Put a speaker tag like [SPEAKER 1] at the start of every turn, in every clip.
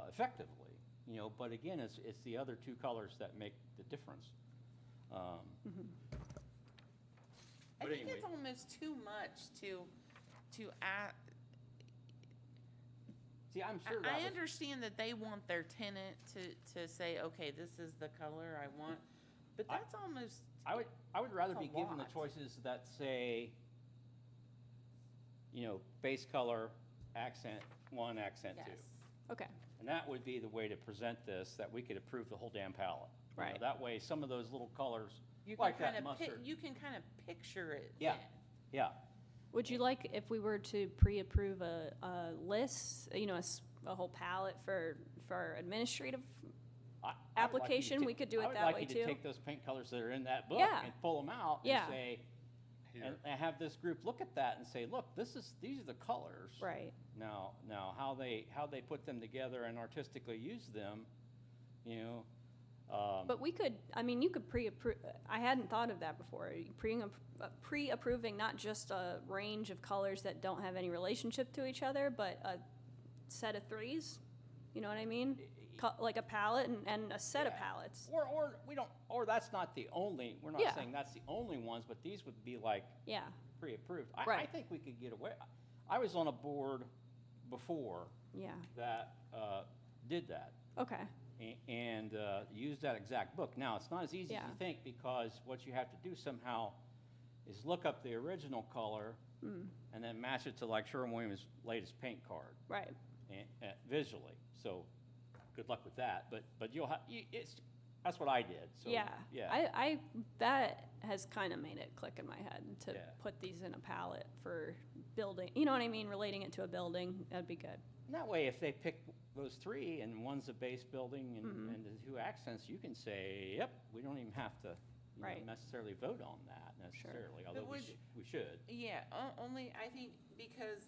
[SPEAKER 1] uh, effectively, you know, but again, it's, it's the other two colors that make the difference. Um,
[SPEAKER 2] I
[SPEAKER 1] But
[SPEAKER 2] think it's
[SPEAKER 1] anyway.
[SPEAKER 2] almost too much to, to, I,
[SPEAKER 3] Mm-hmm.
[SPEAKER 1] See, I'm sure
[SPEAKER 2] I
[SPEAKER 1] that was,
[SPEAKER 2] understand that they want their tenant to, to say, okay, this is the color I want, but
[SPEAKER 1] I-
[SPEAKER 2] that's almost,
[SPEAKER 1] I would, I would rather
[SPEAKER 2] That's
[SPEAKER 1] be
[SPEAKER 2] a
[SPEAKER 1] given the
[SPEAKER 2] lot.
[SPEAKER 1] choices that say, you know, base color, accent one, accent two.
[SPEAKER 2] yes.
[SPEAKER 3] Okay,
[SPEAKER 1] And that would be the way to present this, that we could approve the whole damn palette. You know,
[SPEAKER 3] Right.
[SPEAKER 1] That way, some of those little colors,
[SPEAKER 2] You can
[SPEAKER 1] like that
[SPEAKER 2] kind of,
[SPEAKER 1] mustard.
[SPEAKER 2] you can kind of picture it.
[SPEAKER 1] Yeah, yeah.
[SPEAKER 3] would you like, if we were to pre-approve a, a list, you know, a, s- a whole palette for, for administrative?
[SPEAKER 1] I- I would like you to
[SPEAKER 3] Application,
[SPEAKER 1] ta-
[SPEAKER 3] we could do it that
[SPEAKER 1] I would
[SPEAKER 3] way,
[SPEAKER 1] like you to
[SPEAKER 3] too.
[SPEAKER 1] take those paint colors that are in that book
[SPEAKER 3] Yeah.
[SPEAKER 1] and pull them out and
[SPEAKER 3] Yeah.
[SPEAKER 1] say, and and have this group look at that and say, look, this is, these are the colors.
[SPEAKER 3] Right,
[SPEAKER 1] Now, now, how they, how they put them together and artistically use them, you know, um,
[SPEAKER 3] but we could, I mean, you could pre-approve, I hadn't thought of that before. Pre, uh, pre-approving not just a range of colors that don't have any relationship to each other, but a set of threes, you know what I mean? Co- Like a palette and, and a set of
[SPEAKER 1] Yeah.
[SPEAKER 3] palettes,
[SPEAKER 1] Or, or, we don't, or that's not the only, we're not
[SPEAKER 3] Yeah.
[SPEAKER 1] saying that's the only ones, but these would be like
[SPEAKER 3] yeah,
[SPEAKER 1] pre-approved. I, I
[SPEAKER 3] Right.
[SPEAKER 1] think we could get away, I was on a board before
[SPEAKER 3] yeah,
[SPEAKER 1] that, uh, did that.
[SPEAKER 3] okay,
[SPEAKER 1] a- and uh, use that exact book. Now, it's not as easy as
[SPEAKER 3] Yeah.
[SPEAKER 1] you think because what you have to do somehow is look up the original color
[SPEAKER 3] Hmm.
[SPEAKER 1] and then match it to like Sherwin-Williams' latest paint card
[SPEAKER 3] right,
[SPEAKER 1] and, uh, visually. So, good luck with that. But but you'll have you, it's that's what I did. So
[SPEAKER 3] yeah.
[SPEAKER 1] yeah.
[SPEAKER 3] I, I, that has kind of made it click in my head
[SPEAKER 1] Yeah.
[SPEAKER 3] to put these in a palette for building, you know what I mean, relating it to a building, that'd be good.
[SPEAKER 1] And that way, if they pick those three and one's the base building and,
[SPEAKER 3] Mm-hmm.
[SPEAKER 1] and the two accents, you can say, yep, we don't even have to you know,
[SPEAKER 3] Right.
[SPEAKER 1] necessarily vote on that necessarily, although we,
[SPEAKER 2] would-
[SPEAKER 1] sh- we should.
[SPEAKER 2] Yeah, o- only, I think, because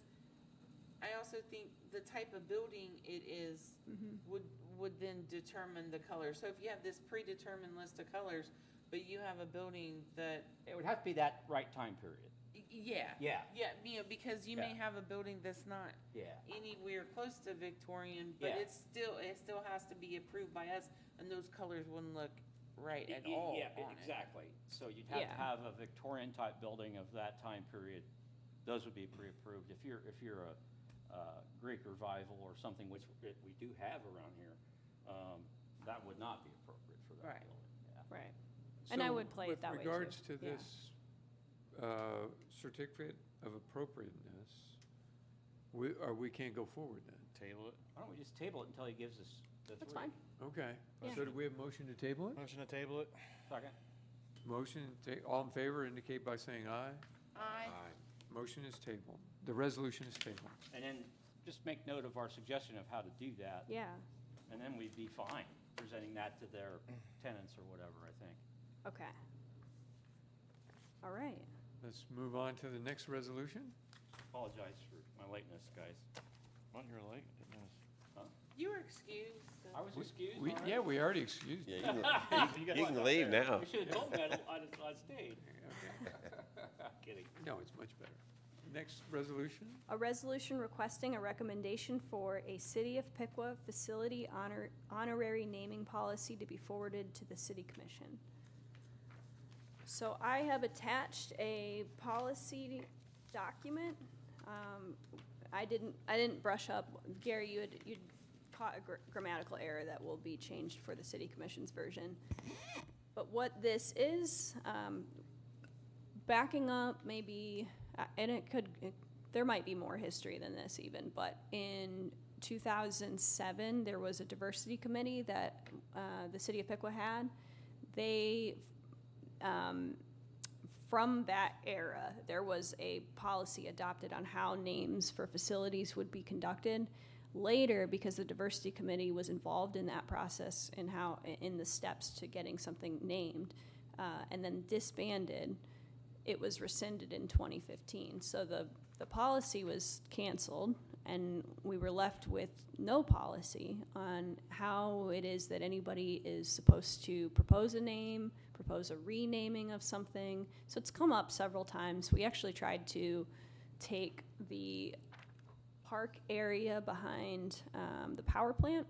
[SPEAKER 2] I also think the type of building it is
[SPEAKER 3] Mm-hmm.
[SPEAKER 2] would, would then determine the color. So if you have this predetermined list of colors, but you have a building that
[SPEAKER 1] It would have to be that right time period.
[SPEAKER 2] Y- Yeah.
[SPEAKER 1] Yeah.
[SPEAKER 2] Yeah, you know, because you may
[SPEAKER 1] Yeah.
[SPEAKER 2] have a building that's not
[SPEAKER 1] Yeah.
[SPEAKER 2] anywhere close to Victorian, but
[SPEAKER 1] Yeah.
[SPEAKER 2] it's still, it still has to be approved by us, and those colors wouldn't look right at
[SPEAKER 1] Y-
[SPEAKER 2] all
[SPEAKER 1] Yeah,
[SPEAKER 2] on it.
[SPEAKER 1] exactly. So you'd have to
[SPEAKER 3] Yeah.
[SPEAKER 1] have a Victorian-type building of that time period. Those would be pre-approved. If you're, if you're a uh, Greek revival or something, which we- we do have around here, um, that would not be appropriate for that
[SPEAKER 2] Right.
[SPEAKER 1] building. yeah.
[SPEAKER 3] Right. And I
[SPEAKER 4] So
[SPEAKER 3] would play it that way,
[SPEAKER 4] With
[SPEAKER 3] too.
[SPEAKER 4] regards to
[SPEAKER 2] Yeah.
[SPEAKER 4] this uh, certificate of appropriateness, we, or we can't go forward then?
[SPEAKER 5] Table it.
[SPEAKER 1] Why don't we just table it until he gives us the three?
[SPEAKER 3] That's fine.
[SPEAKER 4] Okay,
[SPEAKER 3] Yeah.
[SPEAKER 4] so do we have a motion to table it?
[SPEAKER 5] Motion to table it.
[SPEAKER 1] Second?
[SPEAKER 4] Motion, to ta- all in favor indicate by saying aye.
[SPEAKER 2] I,
[SPEAKER 4] Motion is tabled. The resolution is tabled.
[SPEAKER 1] And then just make note of our suggestion of how to do that.
[SPEAKER 3] Yeah,
[SPEAKER 1] And then we'd be fine presenting that to their tenants or whatever, I think.
[SPEAKER 3] okay. All right.
[SPEAKER 4] Let's move on to the next resolution.
[SPEAKER 1] Apologize for my lateness, guys.
[SPEAKER 5] Well, you're late. It was-
[SPEAKER 2] you were excused. so-
[SPEAKER 1] I was excused.
[SPEAKER 4] We,
[SPEAKER 1] alright.
[SPEAKER 4] yeah, we already excused.
[SPEAKER 6] Yeah, you can, you can leave now.
[SPEAKER 1] You should have told me, I'd, I'd- I'd stayed. Kidding.
[SPEAKER 4] No, it's much better. Next resolution?
[SPEAKER 3] A resolution requesting a recommendation for a City of Piqua facility honor, honorary naming policy to be forwarded to the City Commission. So I have attached a policy document. Um, I didn't, I didn't brush up. Gary, you had, you'd caught a gr- grammatical error that will be changed for the City Commission's version. But what this is, um, backing up maybe uh, and it could it- there might be more history than this even but in 2007 there was a diversity committee that uh, the city of piqua had they um, from that era, there was a policy adopted on how names for facilities would be conducted. Later, because the diversity committee was involved in that process and how in the steps to getting something named, uh, and then disbanded, it was rescinded in 2015. So the the policy was canceled, and we were left with no policy on how it is that anybody is supposed to propose a name, propose a renaming of something. So it's come up several times. We actually tried to take the park area behind um, the power plant